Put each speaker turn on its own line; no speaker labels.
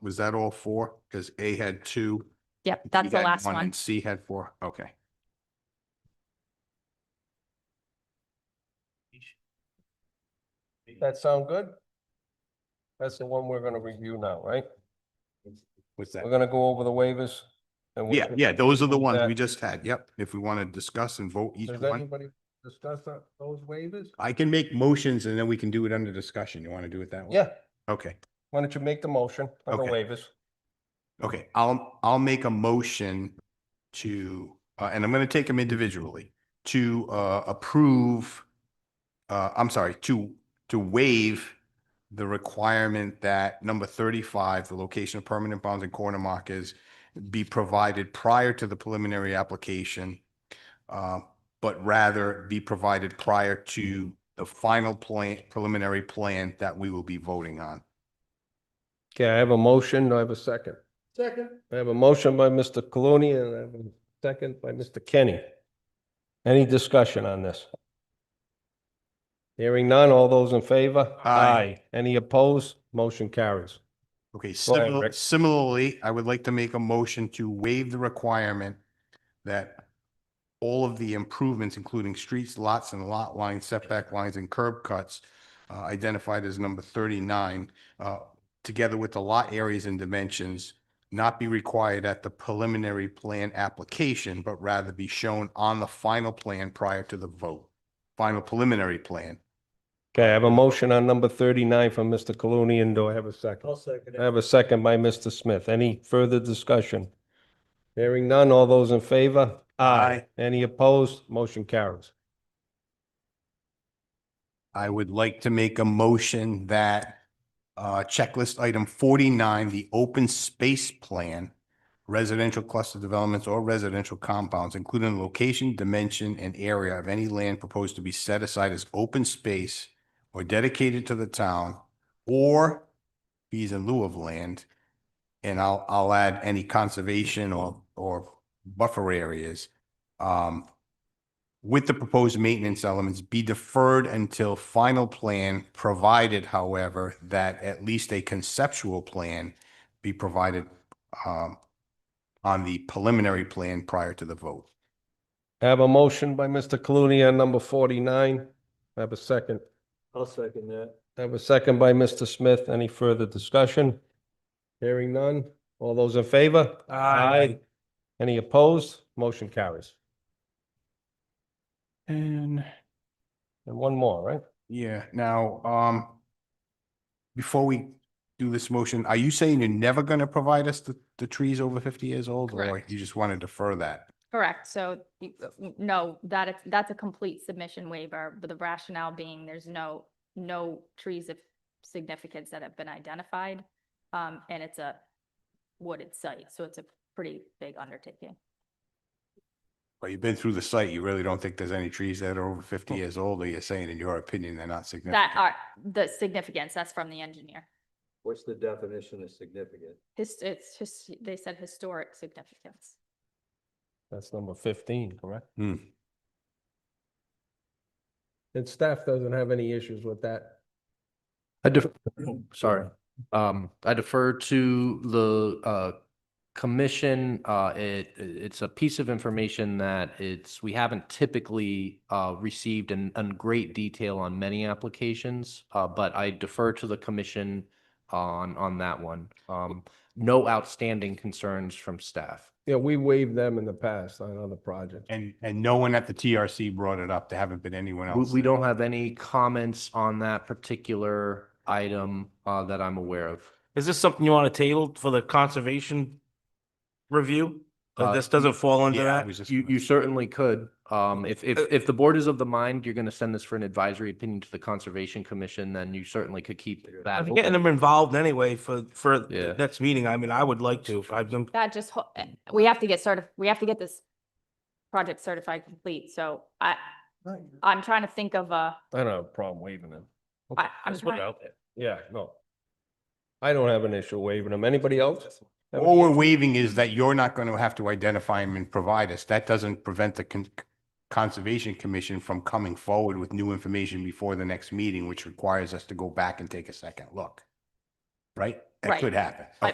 was that all four? Because A had two.
Yep,
B
that's the
had
last one.
And C had four, okay.
That sound good? That's the one we're gonna review now, right?
What's
We're
that?
gonna go over the waivers. and we'll-
Yeah, yeah, those are the ones
that-
we just had, yep. If we want to discuss and vote each
Does
one.
anybody discuss that- those waivers?
I can make motions and then we can do it under discussion. You want to do it that way?
Yeah,
Okay.
why don't you make the motion on the
Okay.
waivers?
Okay, I'll, I'll make a motion to, uh, and I'm gonna take them individually, to, uh, approve, uh, I'm sorry, to, to waive the requirement that number thirty-five, the location of permanent bonds and corner markers be provided prior to the preliminary application, uh, but rather be provided prior to the final plan, preliminary plan that we will be voting on.
Okay, I have a motion, I have a second. Second. I have a motion by Mr. Clooney and I have a second by Mr. Kenny. Any discussion on this? Hearing none, all those in favor?
Aye.
Any opposed? Motion carries.
Okay,
Go ahead,
simil-
Rick.
similarly, I would like to make a motion to waive the requirement that all of the improvements, including streets, lots and lot lines, setback lines and curb cuts, uh, identified as number thirty-nine, uh, together with the lot areas and dimensions, not be required at the preliminary plan application, but rather be shown on the final plan prior to the vote. Final preliminary plan.
Okay, I have a motion on number thirty-nine from Mr. Clooney, and do I have a 2nd
second
I have a second by Mr. Smith. Any further discussion? Hearing none, all those in favor?
Aye.
Any opposed? Motion carries.
I would like to make a motion that uh, checklist item forty-nine, the open space plan, residential cluster developments or residential compounds, including the location, dimension, and area of any land proposed to be set aside as open space or dedicated to the town, or fees in lieu of land. And I'll, I'll add any conservation or, or buffer areas. Um, with the proposed maintenance elements be deferred until final plan, provided however, that at least a conceptual plan be provided um, on the preliminary plan prior to the vote.
I have a motion by Mr. Clooney on number forty-nine. I have a second.
I'll second that.
I have a second by Mr. Smith. Any further discussion? Hearing none. All those in favor? Any opposed? Motion carries.
And
And one more, right?
yeah, now, um, before we do this motion, are you saying you're never going to provide us the, the trees over 50 years old? Or
Correct.
you just want to defer that?
Correct. So y- uh, n- no, that is, that's a complete submission waiver, but the rationale being there's no, no trees of significance that have been identified. Um, and it's a wooded site, so it's a pretty big undertaking.
But you've been through the site, you really don't think there's any trees that are over 50 years old, or you're saying in your opinion they're not significant?
That are, the significance, that's from the engineer.
What's the definition of significant?
His, it's just, they said historic significance.
That's number fifteen, correct?
Hmm.
And staff doesn't have any issues with that.
I def- oh, sorry, um, I defer to the, uh, commission, uh, it, it's a piece of information that it's, we haven't typically, uh, received in, in great detail on many applications, uh, but I defer to the commission on, on that one. Um, no outstanding concerns from staff.
Yeah, we waived them in the past on other projects.
And, and no one at the TRC brought it up. There haven't been anyone
We,
else.
we don't have any comments on that particular item, uh, that I'm aware of.
Is this something you want to table for the conservation review? Or
Uh,
This doesn't fall under
Yeah, I
that?
was just
You,
gonna- Uh,
you certainly could. Um, if, if, if the board is of the mind, you're gonna send this for an advisory opinion to the Conservation Commission, then you certainly could keep that.
I think getting
open.
them involved anyway for, for
Yeah.
the next meeting. I mean, I would like to. I've been,
That just, ho- eh, we have to get certi, we have to get this project certified complete, so I, I'm trying to think of a,
I don't have a problem waiving them.
I, I'm
just put
trying.
it out there.
Yeah, no. I don't have an issue waiving them. Anybody else? have an
All we're waiving is that you're not going to have to identify them and provide us. That doesn't prevent the con- Conservation Commission from coming forward with new information before the next meeting, which requires us to go back and take a second look. Right? That
Right.
could happen.
I-